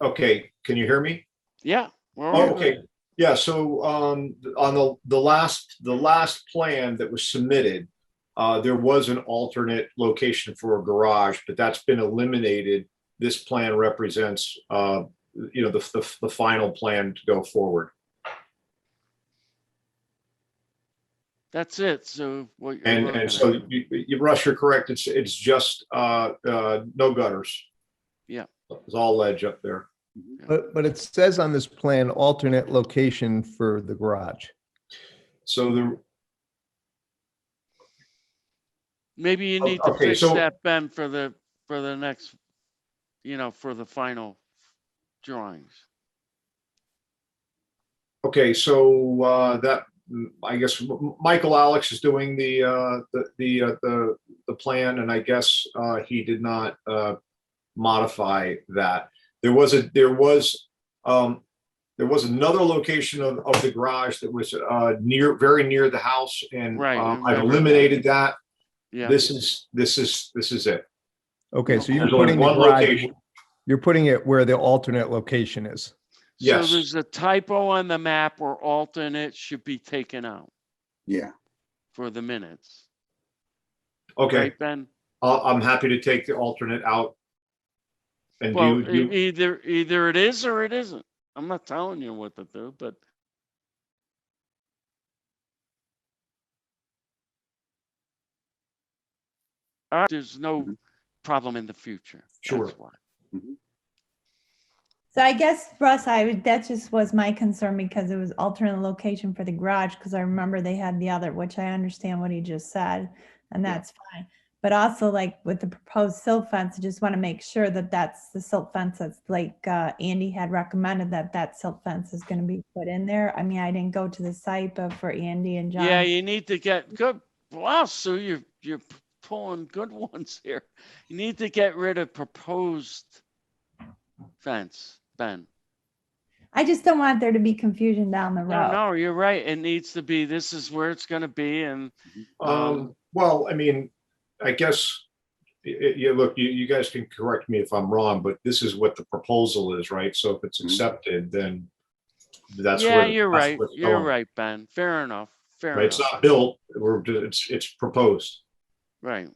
Okay, can you hear me? Yeah. we're all good. Okay, yeah, so um, on the, the last, the last plan that was submitted, uh, there was an alternate location for a garage, but that's been eliminated. This plan represents, uh, you know, the, the, the final plan to go forward. That's it. So what? you're And, looking and so at- you, you, Russ, you're correct. It's, it's just, uh, uh, no gutters. Yeah. It's all ledge up there. But, but it says on this plan, alternate location for the garage. So the, Maybe you O- need to okay, fix so- that, Ben, for the, for the next, you know, for the final drawings. Okay, so uh, that, mm, I guess, M- M- Michael Alex is doing the, uh, the, the, uh, the, the plan, and I guess uh, he did not uh, modify that. There was a, there was, um, there was another location of, of the garage that was uh, near, very near the house, and Right, I um, I've remember. eliminated that. Yeah. This is, this is, this is it. Okay, so you're There's only putting the one garage, location. you're putting it where the alternate location is. So yes. there's a typo on the map where alternate should be taken out Yeah, for the minutes. Okay, Right, Ben? I- I'm happy to take the alternate out. And Well, do, e- you- either, either it is or it isn't. I'm not telling you what to do, but All right, there's no Mhm. problem in the future. Mm-hmm. Sure. That's why. So I guess Russ, I, would- that just was my concern because it was alternate location for the garage, because I remember they had the other, which I understand what he just said, and Yeah. that's fine. But also like with the proposed silt fence, I just want to make sure that that's the silt fence that's like, uh, Andy had recommended that that silt fence is going to be put in there. I mean, I didn't go to the site, but for Andy and John. Yeah, you need to get good. Wow, Sue, you're you're p- pulling good ones here. You need to get rid of proposed fence, Ben. I just don't want there to be confusion down the No, road. no, you're right. It needs to be, this is where it's gonna be and Um, Um, well, I mean, I guess, y- y- yeah, look, you, you guys can correct me if I'm wrong, but this is what the proposal is, right? So if it's Mhm. accepted, then that's where. yeah, you're that's right. where it's You're going, right, Ben. Fair enough. Fair right? It's enough. not built, we're, ju- it's, it's proposed. Right.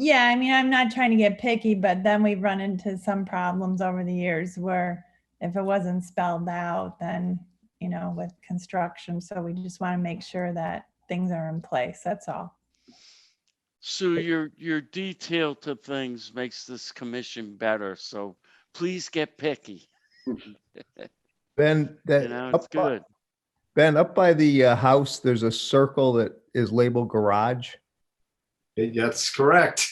Yeah, I mean, I'm not trying to get picky, but then we've run into some problems over the years where if it wasn't spelled out, then, you know, with construction, so we just want to make sure that things are in place, that's all. Sue, your your detail to things makes this commission better, so please get picky. Ben, You that, know, up it's by- good. Ben, up by the uh, house, there's a circle that is labeled garage. It- That's correct.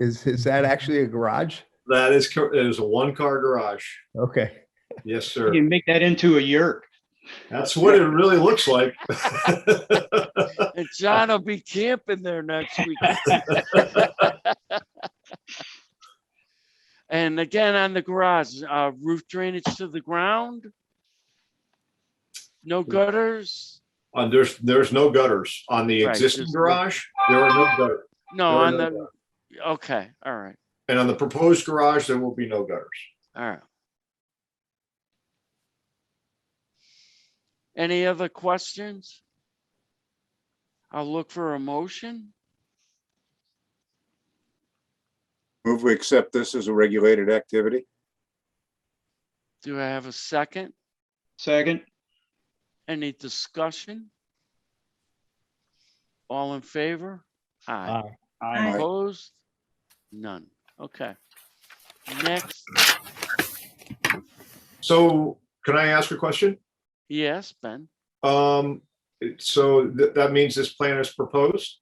Is, is that actually a garage? That is, cor- it is a one-car garage. Okay. Yes, You sir. can make that into a yurt. That's what it really looks like. And John will be camping there next week. And again, on the garage, uh, roof drainage to the ground. No gutters? Uh, there's, there's no gutters on the Right, existing there's no- garage. There are no gutters. No, There are on no the, okay, all right, And on the proposed garage, there will be no gutters. all right. Any other questions? I'll look for a motion. move we accept this as a regulated activity? Do I have a second? Second, Any discussion? All in favor? Aye. Aye. I, Opposed? None. Okay. Next, So can I ask a question? yes, Ben. Um, it- so that, that means this plan is proposed?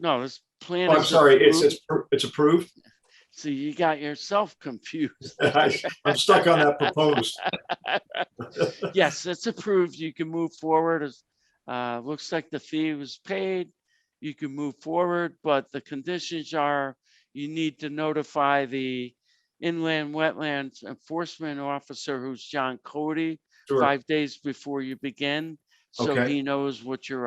No, this plan. Oh, I'm is sorry, it's, it's, approved. pr- it's approved? See, you got yourself confused. I- I'm stuck on that proposed. Yes, it's approved. You can move forward. as- Uh, looks like the fee was paid. You can move forward, but the conditions are you need to notify the inland wetlands enforcement officer, who's John Cody, Sure. five days before you begin. So Okay. he knows what you're up